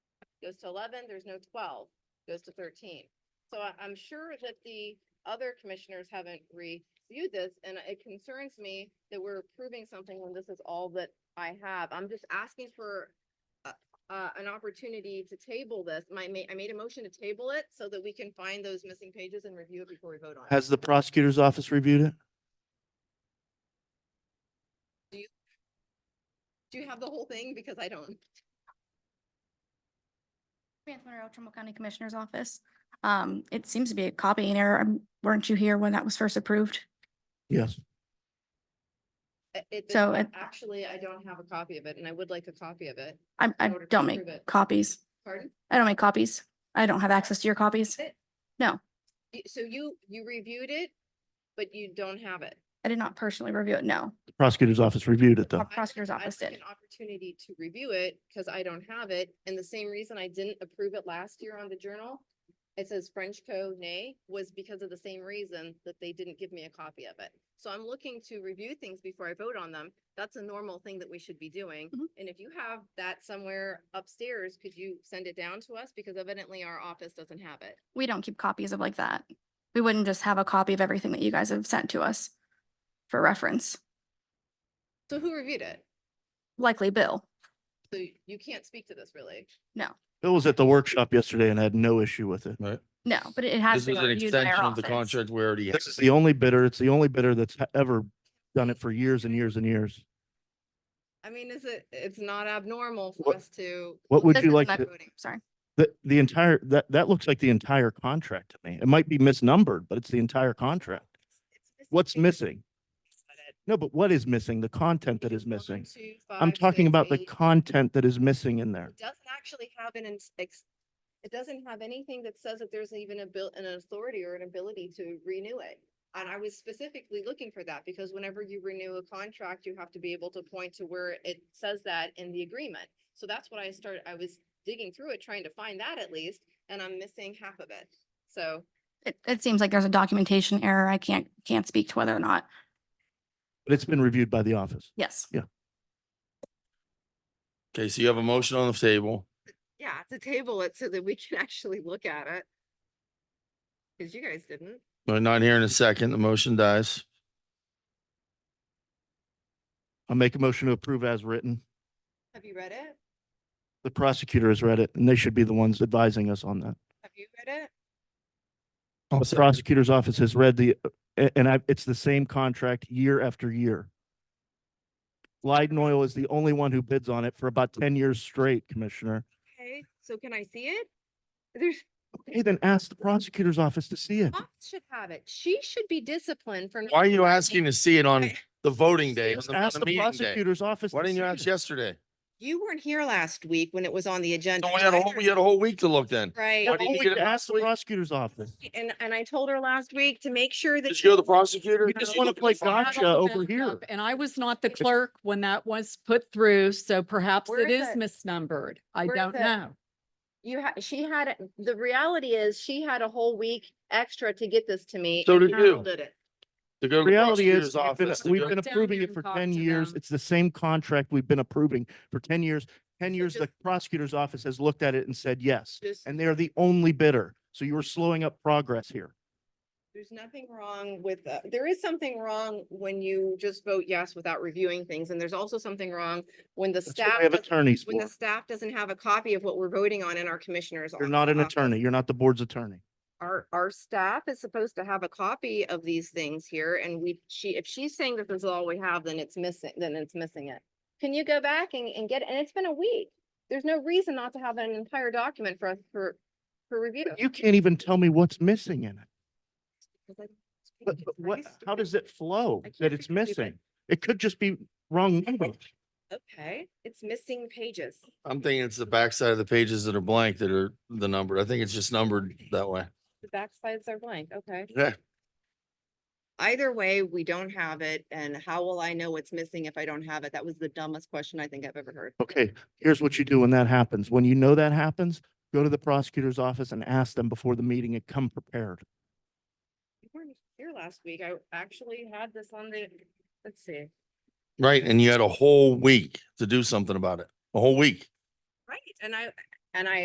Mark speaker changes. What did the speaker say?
Speaker 1: goes to eleven, there's no twelve, goes to thirteen. So I, I'm sure that the other commissioners haven't reviewed this, and it concerns me that we're approving something when this is all that I have. I'm just asking for uh, uh, an opportunity to table this. My, ma- I made a motion to table it so that we can find those missing pages and review it before we vote on it.
Speaker 2: Has the prosecutor's office reviewed it?
Speaker 1: Do you have the whole thing? Because I don't.
Speaker 3: Samantha Monroe, Trumbull County Commissioner's Office. Um, it seems to be a copy and error. Um, Weren't you here when that was first approved?
Speaker 2: Yes.
Speaker 1: I- It, this
Speaker 3: So uh,
Speaker 1: one-
Speaker 3: it-
Speaker 1: actually, I don't have a copy of it and I would like a copy of it.
Speaker 3: I, I
Speaker 1: In order to
Speaker 3: don't
Speaker 1: approve it.
Speaker 3: make copies.
Speaker 1: Pardon?
Speaker 3: I don't make copies. I don't have access to your copies.
Speaker 1: Y- So you, you reviewed it, but you don't have it.
Speaker 3: I did not personally review it, no.
Speaker 2: The prosecutor's office reviewed it
Speaker 3: Our
Speaker 2: though.
Speaker 3: prosecutor's
Speaker 1: I'd
Speaker 3: office
Speaker 1: like
Speaker 3: did.
Speaker 1: An opportunity to review it because I don't have it. And the same reason I didn't approve it last year on the journal. It says Frenchco nay was because of the same reason that they didn't give me a copy of it. So I'm looking to review things before I vote on them. That's a normal thing that we should be doing.
Speaker 3: Mhm.
Speaker 1: And if you have that somewhere upstairs, could you send it down to us? Because evidently our office doesn't have it.
Speaker 3: We don't keep copies of like that. We wouldn't just have a copy of everything that you guys have sent to us for reference,
Speaker 1: So who reviewed it?
Speaker 3: likely Bill.
Speaker 1: So you can't speak to this really.
Speaker 2: Bill was at the workshop yesterday and had no issue with it.
Speaker 4: Right.
Speaker 3: No, but it has
Speaker 4: This
Speaker 3: been
Speaker 4: is an
Speaker 3: reviewed by
Speaker 4: extension
Speaker 3: our
Speaker 4: of the
Speaker 3: office.
Speaker 4: contract we already.
Speaker 2: This is the only bidder, it's the only bidder that's ha- ever done it for years and years and years.
Speaker 1: I mean, is it, it's not abnormal for
Speaker 2: What-
Speaker 1: us to.
Speaker 2: what would
Speaker 3: This
Speaker 2: you
Speaker 3: is
Speaker 2: like
Speaker 3: my
Speaker 2: to-
Speaker 3: voting, Sorry.
Speaker 2: The, the entire, that, that looks like the entire contract to me. It might be misnumbered, but it's the entire contract. What's missing? No, but what is missing? The content that is missing. I'm talking about the
Speaker 1: content.
Speaker 2: content that is missing in there.
Speaker 1: It doesn't actually have an, ins- ex- it doesn't have anything that says that there's even a bill, an authority or an ability to renew it. And I was specifically looking for that because whenever you renew a contract, you have to be able to point to where it says that in the agreement. So that's what I started, I was digging through it, trying to find that at least, and I'm missing half of it. So
Speaker 3: It, it seems like there's a documentation error. I can't, can't speak to whether or not.
Speaker 2: But it's been reviewed by the office.
Speaker 3: Yes.
Speaker 4: Okay, so you have a motion on the table.
Speaker 1: yeah, to table it so that we can actually look at it. Cause you guys didn't.
Speaker 4: We're not here in a second. The motion dies.
Speaker 2: I'll make a motion to approve as written.
Speaker 1: Have you read it?
Speaker 2: The prosecutor has read it and they should be the ones advising us on that.
Speaker 1: Have you read it?
Speaker 4: I'll
Speaker 2: The
Speaker 4: sec-
Speaker 2: prosecutor's office has read the, uh, a- and I, it's the same contract year after year. Leiden Oil is the only one who bids on it for about ten years straight, Commissioner.
Speaker 1: Okay, so can I see it? There's,
Speaker 2: Okay, then ask the prosecutor's office to see it.
Speaker 1: Fox should have it. She should be disciplined for. not
Speaker 4: Why are you
Speaker 1: providing-
Speaker 4: asking to see it on the voting day? on
Speaker 2: Just
Speaker 4: the- on
Speaker 2: Ask
Speaker 4: the
Speaker 2: the
Speaker 4: meeting day?
Speaker 2: prosecutor's office.
Speaker 4: Why
Speaker 2: to
Speaker 4: didn't you
Speaker 2: see
Speaker 4: ask
Speaker 2: it.
Speaker 4: yesterday?
Speaker 1: You weren't here last week when it was on the agenda.
Speaker 4: So we had a whole, we had a whole week to look then.
Speaker 1: Right.
Speaker 4: Why
Speaker 2: Well,
Speaker 4: didn't you
Speaker 2: we
Speaker 4: get it
Speaker 2: could Ask
Speaker 4: last
Speaker 2: the
Speaker 4: week?
Speaker 2: prosecutor's office.
Speaker 1: And, and I told her last week to make sure that.
Speaker 4: Did you go to the prosecutor?
Speaker 2: You
Speaker 4: Did
Speaker 2: just
Speaker 4: you
Speaker 2: wanna
Speaker 4: look at the
Speaker 2: play
Speaker 4: file?
Speaker 2: gotcha.
Speaker 5: I'll
Speaker 2: over
Speaker 5: look it
Speaker 2: here.
Speaker 5: up, And I was not the clerk when that was put through, so perhaps
Speaker 1: Where
Speaker 5: it
Speaker 1: is
Speaker 5: is
Speaker 1: it?
Speaker 5: misnumbered. I
Speaker 1: Where is
Speaker 5: don't
Speaker 1: it?
Speaker 5: know.
Speaker 1: You had, she had, it- the reality is she had a whole week extra to get this to me.
Speaker 4: So
Speaker 1: and
Speaker 4: did you.
Speaker 1: Carol Did it.
Speaker 4: To go to
Speaker 2: The
Speaker 4: the
Speaker 2: Reality is,
Speaker 4: prosecutor's
Speaker 2: we've been-
Speaker 4: office to
Speaker 2: we've
Speaker 4: go-
Speaker 2: been
Speaker 5: Down
Speaker 2: approving
Speaker 5: here
Speaker 2: it
Speaker 5: and
Speaker 2: for
Speaker 5: talk
Speaker 2: ten
Speaker 5: to
Speaker 2: years.
Speaker 5: them.
Speaker 2: It's the same contract we've been approving for ten years. Ten
Speaker 1: So
Speaker 2: years, the
Speaker 1: just-
Speaker 2: prosecutor's office has looked at it and said yes.
Speaker 1: Just,
Speaker 2: And they are the only bidder. So you are slowing up progress here.
Speaker 1: there's nothing wrong with, uh, there is something wrong when you just vote yes without reviewing things. And there's also something wrong when the
Speaker 2: That's what
Speaker 1: staff,
Speaker 2: we have
Speaker 1: doesn't-
Speaker 2: attorneys
Speaker 1: when
Speaker 2: for.
Speaker 1: the staff doesn't have a copy of what we're voting on in our commissioners.
Speaker 2: You're
Speaker 1: office-
Speaker 2: not an
Speaker 1: office.
Speaker 2: attorney. You're not the board's attorney.
Speaker 1: our, our staff is supposed to have a copy of these things here and we, she, if she's saying that this is all we have, then it's missing, then it's missing it. Can you go back and, and get, it? and it's been a week. There's no reason not to have an entire document for us for, for review.
Speaker 2: You can't even tell me what's missing in it.
Speaker 1: Because I-
Speaker 2: But, but
Speaker 1: Are
Speaker 2: what,
Speaker 1: you
Speaker 2: how
Speaker 1: stupid?
Speaker 2: does it flow
Speaker 1: I can't
Speaker 2: that it's
Speaker 1: figure it out.
Speaker 2: missing? It could just be wrong numbers.
Speaker 1: Okay, it's missing pages.
Speaker 4: I'm thinking it's the backside of the pages that are blank that are the numbered. I think it's just numbered that way.
Speaker 1: The backsides are blank, okay.
Speaker 4: Yeah.
Speaker 1: Either way, we don't have it and how will I know what's missing if I don't have it? That was the dumbest question I think I've ever heard.
Speaker 2: Okay, here's what you do when that happens. When you know that happens, go to the prosecutor's office and ask them before the meeting and come prepared.
Speaker 1: You weren't here last week. I actually had this on the, let's see.
Speaker 4: Right, and you had a whole week to do something about it, a whole week.
Speaker 1: Right, and I, and I